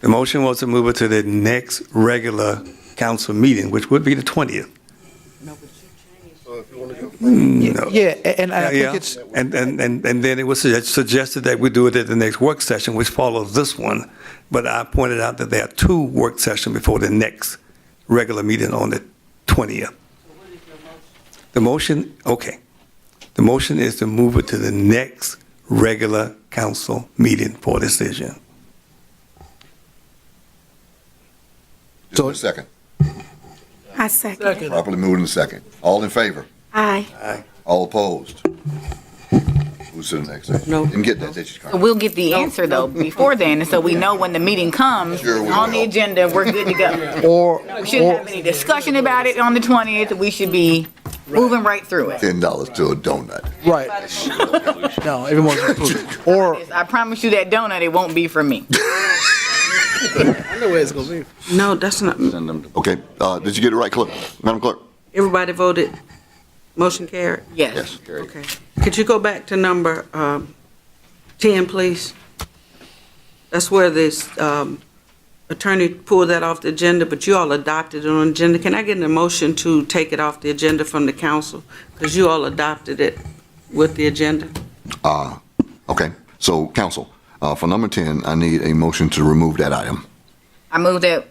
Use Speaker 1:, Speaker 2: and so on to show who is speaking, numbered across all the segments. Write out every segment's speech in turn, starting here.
Speaker 1: The motion was to move it to the next regular council meeting, which would be the 20th. Mm, No.
Speaker 2: Yeah, a- and I
Speaker 1: Yeah,
Speaker 2: think it's,
Speaker 1: and, and, and and then it was sugge- suggested that we do it at the next work session, which follows this one. But I pointed out that there are two work sessions before the next regular meeting on the 20th. The motion, okay. The motion is to move it to the next regular council meeting for decision.
Speaker 3: Is there a second?
Speaker 4: I second.
Speaker 3: Properly moved in second. All in favor?
Speaker 4: Aye.
Speaker 3: All opposed? Who's the next? No. Didn't get that, did you, Carmen?
Speaker 5: We'll get the answer though before then, and so we know when the meeting comes,
Speaker 3: Sure we
Speaker 5: on the
Speaker 3: will.
Speaker 5: agenda, we're good to go.
Speaker 2: or,
Speaker 5: We shouldn't have any discussion about it on the 20th, we should be moving right through it.
Speaker 3: Ten dollars to a donut.
Speaker 2: right. No, everyone's included. Or,
Speaker 5: I promise you that donut, it won't be for me.
Speaker 6: No, that's not,
Speaker 3: Okay, uh, did you get it right, clerk? Madam Clerk?
Speaker 6: everybody voted, motion carried,
Speaker 5: Yes.
Speaker 3: carried.
Speaker 6: okay. Could you go back to number um, 10, please? That's where this um, attorney pulled that off the agenda, but you all adopted it on agenda. Can I get a motion to take it off the agenda from the council? Because you all adopted it with the agenda.
Speaker 3: Uh, okay, so council, uh, for number ten, I need a motion to remove that item.
Speaker 5: I move that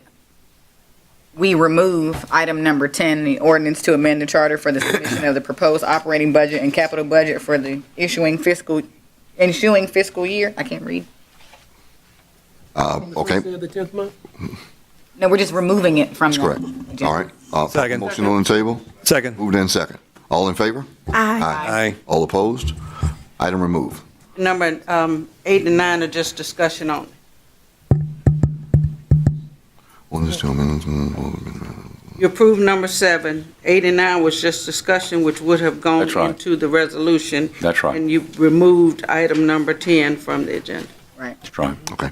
Speaker 5: we remove item number 10, the ordinance to amend the charter for the submission of the proposed operating budget and capital budget for the issuing fiscal, ensuing fiscal year. I can't read.
Speaker 3: Uh, okay,
Speaker 5: No, we're just removing it from
Speaker 3: that's
Speaker 5: the.
Speaker 3: correct.
Speaker 5: agenda.
Speaker 3: All right. Uh,
Speaker 1: Second.
Speaker 3: Motion on the table,
Speaker 1: Second.
Speaker 3: moved in second. All in favor?
Speaker 4: Aye.
Speaker 1: Aye.
Speaker 3: All opposed? Item removed.
Speaker 6: Number um, eight and nine are just discussion on.
Speaker 3: One is two amendments, mm, mm,
Speaker 6: You approved number seven. Eight and nine was just discussion, which would have gone
Speaker 7: That's right.
Speaker 6: into the resolution.
Speaker 7: That's right,
Speaker 6: And you removed item number 10 from the agenda.
Speaker 7: that's right.
Speaker 3: mm. Okay.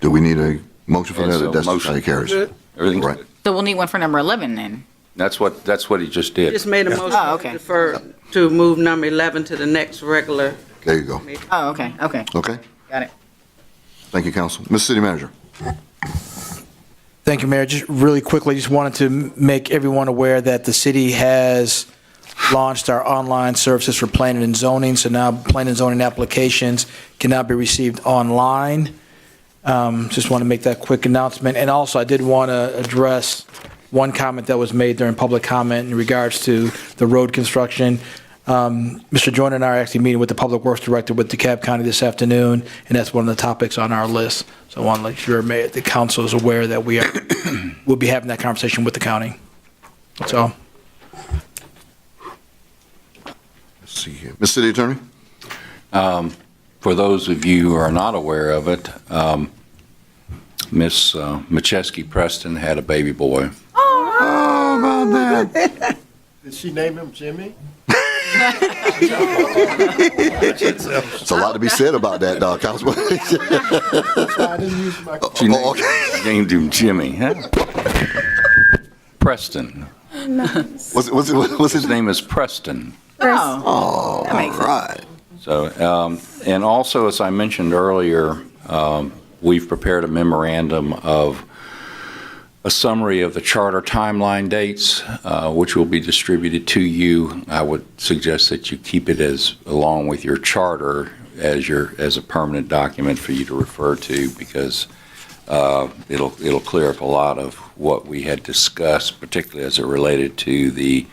Speaker 3: Do we need a motion for
Speaker 7: Yes,
Speaker 3: that?
Speaker 7: a
Speaker 3: That's
Speaker 7: motion.
Speaker 3: how it carries.
Speaker 7: Everything's
Speaker 3: Right.
Speaker 7: good.
Speaker 5: So we'll need one for number 11 then.
Speaker 7: That's what, that's what he just did.
Speaker 6: Just made a motion
Speaker 5: Oh,
Speaker 6: to
Speaker 5: okay.
Speaker 6: defer, to move number 11 to the next regular.
Speaker 3: There you go.
Speaker 5: Oh, okay, okay.
Speaker 3: Okay?
Speaker 5: Got it.
Speaker 3: Thank you, council. Mr. City Manager?
Speaker 2: thank you, Mayor, just really quickly, just wanted to m- make everyone aware that the city has launched our online services for planning and zoning, so now planning and zoning applications can now be received online. Um, Just want to make that quick announcement, and also I did want to address one comment that was made during public comment in regards to the road construction. Um, Mr. Joyner and I are actually meeting with the Public Works Director with DeKalb County this afternoon, and that's one of the topics on our list. So I want to make sure ma- the council is aware that we are, we'll be having that conversation with the county. That's all.
Speaker 3: Let's see here. Mr. City Attorney?
Speaker 7: Um, For those of you who are not aware of it, um, Miss uh, Macheski Preston had a baby boy.
Speaker 3: How about that?
Speaker 8: Did she name him Jimmy?
Speaker 3: It's a lot to be said about that, uh, Councilman.
Speaker 8: I didn't use my.
Speaker 7: She
Speaker 3: Oh,
Speaker 7: named
Speaker 3: okay.
Speaker 7: named him Jimmy, huh? Preston.
Speaker 3: What's, what's, what's his
Speaker 7: His
Speaker 3: name?
Speaker 7: name is Preston.
Speaker 5: Oh,
Speaker 3: Oh,
Speaker 5: That makes sense.
Speaker 3: right.
Speaker 7: So, um, and also, as I mentioned earlier, um, we've prepared a memorandum of a summary of the charter timeline dates, uh, which will be distributed to you. I would suggest that you keep it as, along with your charter, as your, as a permanent document for you to refer to, because uh, it'll, it'll clear up a lot of what we had discussed, particularly as it related to the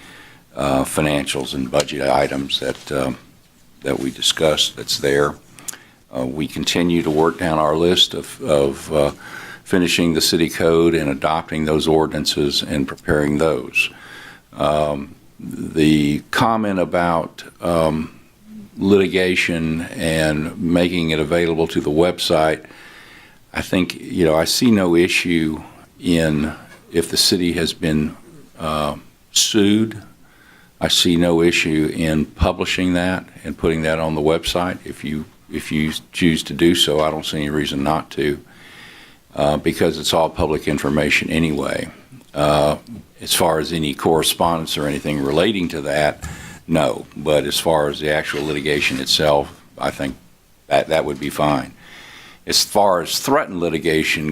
Speaker 7: uh, financials and budget items that um, that we discussed that's there. Uh, We continue to work down our list of, of uh, finishing the city code and adopting those ordinances and preparing those. Um, The comment about um, litigation and making it available to the website, I think, you know, I see no issue in if the city has been uh, sued I see no issue in publishing that and putting that on the website. If you, if you choose to do so, I don't see any reason not to, uh, because it's all public information anyway. Uh, As far as any correspondence or anything relating to that, no. But as far as the actual litigation itself, I think that, that would be fine. as far as threatened litigation